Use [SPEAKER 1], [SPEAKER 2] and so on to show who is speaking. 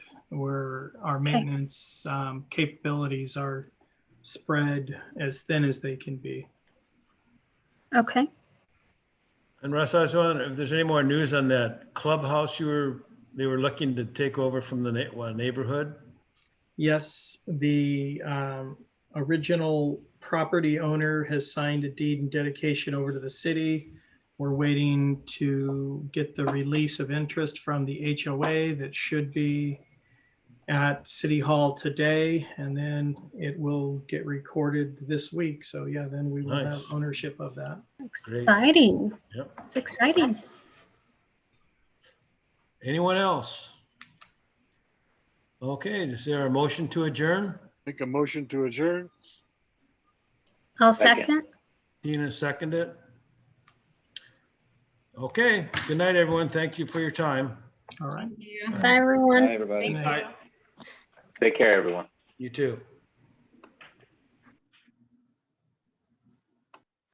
[SPEAKER 1] where our maintenance um, capabilities are spread as thin as they can be.
[SPEAKER 2] Okay.
[SPEAKER 3] And Russ, I was wondering if there's any more news on that clubhouse you were, they were looking to take over from the na- what, neighborhood?
[SPEAKER 1] Yes, the um, original property owner has signed a deed and dedication over to the city. We're waiting to get the release of interest from the HOA that should be at City Hall today, and then it will get recorded this week. So yeah, then we will have
[SPEAKER 3] Nice.
[SPEAKER 1] ownership of that.
[SPEAKER 3] Great.
[SPEAKER 2] Exciting.
[SPEAKER 3] Yep.
[SPEAKER 2] It's exciting.
[SPEAKER 3] Anyone else? Okay, is there a motion to adjourn?
[SPEAKER 4] Make a motion to adjourn.
[SPEAKER 2] I'll
[SPEAKER 5] Second.
[SPEAKER 2] second.
[SPEAKER 3] Tina second it? Okay, good night, everyone. Thank you for your time.
[SPEAKER 1] All right.
[SPEAKER 2] Bye, everyone.
[SPEAKER 5] Hi, everybody.
[SPEAKER 1] Thank you.
[SPEAKER 3] Bye.
[SPEAKER 5] Take care, everyone.
[SPEAKER 3] You too.